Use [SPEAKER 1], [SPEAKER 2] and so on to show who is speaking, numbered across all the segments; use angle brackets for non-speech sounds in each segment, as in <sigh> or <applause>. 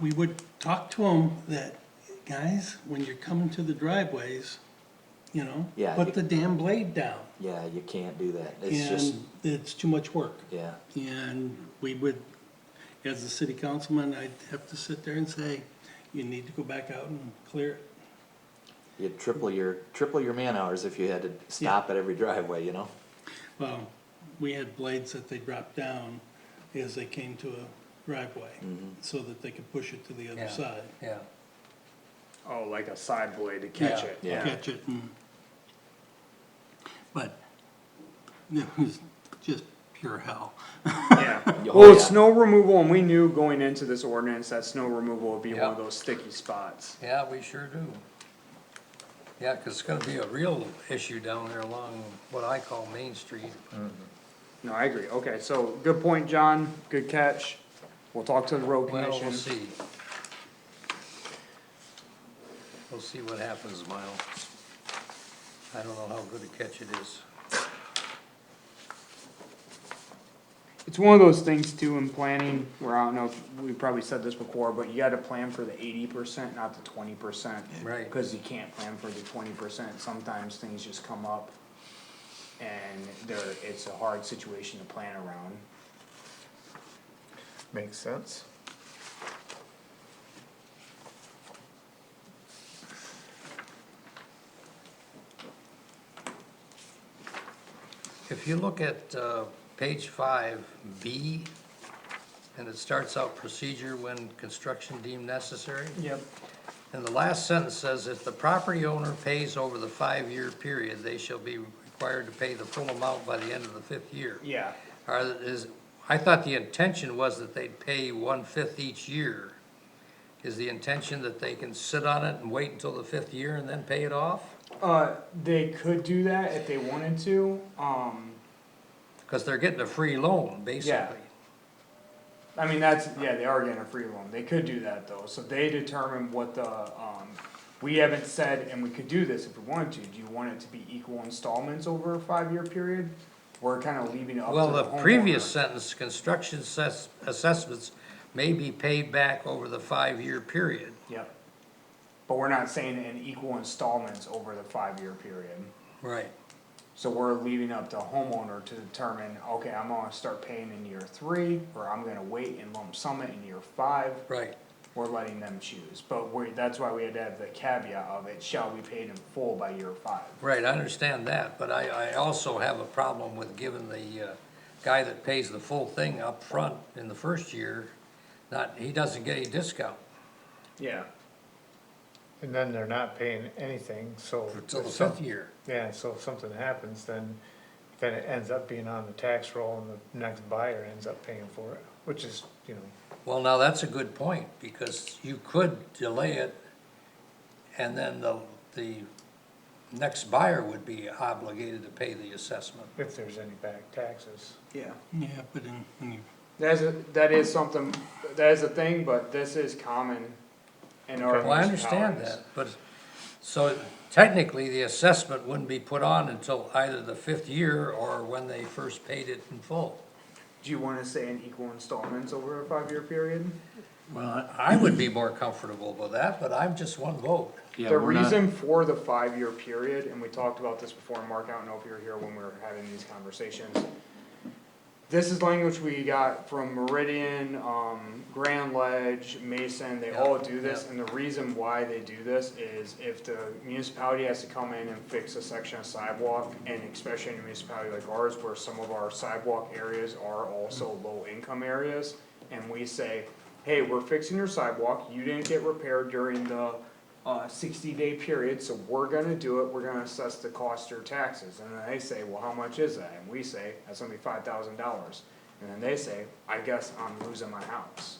[SPEAKER 1] we would talk to them that, guys, when you're coming to the driveways, you know,
[SPEAKER 2] Yeah, you-
[SPEAKER 1] put the damn blade down.
[SPEAKER 2] Yeah, you can't do that. It's just,
[SPEAKER 1] And it's too much work.
[SPEAKER 2] yeah,
[SPEAKER 1] And we would, as a city councilman, I'd have to sit there and say, you need to go back out and clear it.
[SPEAKER 2] you'd triple your, triple your man hours if you had to stop at every driveway, you know?
[SPEAKER 1] Well, we had blades that they dropped down as they came to a driveway,
[SPEAKER 2] Mm-hmm.
[SPEAKER 1] so that they could push it to the
[SPEAKER 3] Yeah.
[SPEAKER 1] other side.
[SPEAKER 3] Yeah,
[SPEAKER 4] Oh, like a side blade to catch it.
[SPEAKER 2] Yeah.
[SPEAKER 1] Catch it and, but it was just pure hell.
[SPEAKER 4] Yeah.
[SPEAKER 3] <laughs>
[SPEAKER 2] Oh,
[SPEAKER 4] Well,
[SPEAKER 2] yeah.
[SPEAKER 4] snow removal, and we knew going into this ordinance that snow removal would be one
[SPEAKER 3] Yep.
[SPEAKER 4] of those sticky spots.
[SPEAKER 3] yeah, we sure do. Yeah, 'cause it's gonna be a real issue down there along what I call Main Street.
[SPEAKER 4] No, I agree. Okay, so good point, John. Good catch. We'll talk to the road
[SPEAKER 3] Well,
[SPEAKER 4] commission.
[SPEAKER 3] we'll see. We'll see what happens, Miles. I don't know how good a catch it is.
[SPEAKER 4] It's one of those things too in planning, where I don't know, if we probably said this before, but you gotta plan for the eighty percent, not the twenty percent.
[SPEAKER 3] Right.
[SPEAKER 4] Cause you can't plan for the twenty percent, sometimes things just come up. And there, it's a hard situation to plan around.
[SPEAKER 5] Makes sense.
[SPEAKER 3] If you look at, uh, page five, B, and it starts out procedure when construction deemed necessary.
[SPEAKER 4] Yep.
[SPEAKER 3] And the last sentence says, if the property owner pays over the five-year period, they shall be required to pay the full amount by the end of the fifth year.
[SPEAKER 4] Yeah,
[SPEAKER 3] Or is, I thought the intention was that they'd pay one-fifth each year. Is the intention that they can sit on it and wait until the fifth year and then pay it off?
[SPEAKER 4] uh, they could do that if they wanted to, um,
[SPEAKER 3] Cause they're getting a free loan, basically.
[SPEAKER 4] I mean, that's, yeah, they are getting a free loan, they could do that though, so they determine what the, um, we haven't said, and we could do this if we wanted to, do you want it to be equal installments over a five-year period? We're kinda leaving it up to the
[SPEAKER 3] Well,
[SPEAKER 4] homeowner.
[SPEAKER 3] the previous sentence, construction assess, assessments may be paid back over the five-year period.
[SPEAKER 4] Yep, but we're not saying in equal installments over the five-year period,
[SPEAKER 3] Right.
[SPEAKER 4] so we're leaving up to homeowner to determine, okay, I'm gonna start paying in year three, or I'm gonna wait and lump sum it in year five,
[SPEAKER 3] Right.
[SPEAKER 4] we're letting them choose, but we, that's why we had to have the caveat of it shall be paid in full by year five.
[SPEAKER 3] Right, I understand that, but I, I also have a problem with giving the, uh, guy that pays the full thing up front in the first year, not, he doesn't get any discount
[SPEAKER 4] Yeah.
[SPEAKER 5] And then they're not paying anything, so.
[SPEAKER 3] until the
[SPEAKER 5] if some-
[SPEAKER 3] fifth year.
[SPEAKER 5] Yeah, so if something happens, then, then it ends up being on the tax roll and the next buyer ends up paying for it, which is, you know,
[SPEAKER 3] Well, now that's a good point, because you could delay it, and then the, the next buyer would be obligated to pay the assessment.
[SPEAKER 5] if there's any back taxes.
[SPEAKER 4] Yeah.
[SPEAKER 1] Yeah, but in, when you,
[SPEAKER 4] That's, a- that is something, that is a thing, but this is common in our.
[SPEAKER 3] Well, I understand
[SPEAKER 4] municipalities.
[SPEAKER 3] that, but, so technically, the assessment wouldn't be put on until either the fifth year or when they first paid it in full.
[SPEAKER 4] Do you wanna say in equal installments over a five-year period?
[SPEAKER 3] Well, I would be more comfortable with that, but I'm just one vote.
[SPEAKER 4] The reason for the five-year period, and we talked about this before, Mark, I don't know if you were here when we were having these conversations. This is language we got from Meridian, um, Grand Ledge, Mason, they all do this, and the reason why they do this is if the municipality has to come in and fix a section of sidewalk, and especially in a municipality like ours, where some of our sidewalk areas are also low-income areas, and we say, hey, we're fixing your sidewalk, you didn't get repaired during the, uh, sixty day period, so we're gonna do it, we're gonna assess the cost or taxes, and then they say, well, how much is that? And we say, that's gonna be five thousand dollars, and then they say, I guess I'm losing my house.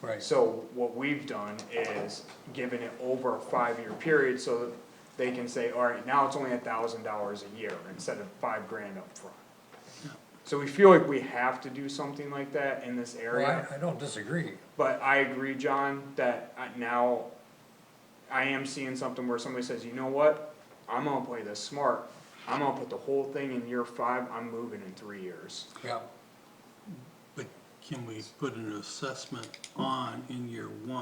[SPEAKER 3] Right.
[SPEAKER 4] So what we've done is given it over a five-year period, so that they can say, alright, now it's only a thousand dollars a year instead of five grand upfront. So we feel like we have to do something like that in this area.
[SPEAKER 3] Well, I, I don't disagree.
[SPEAKER 4] But I agree, John, that I- now I am seeing something where somebody says, you know what? I'm gonna play this smart. I'm gonna put the whole thing in year five. I'm moving in three years.
[SPEAKER 3] Yeah.
[SPEAKER 1] but can we put an assessment on in year one?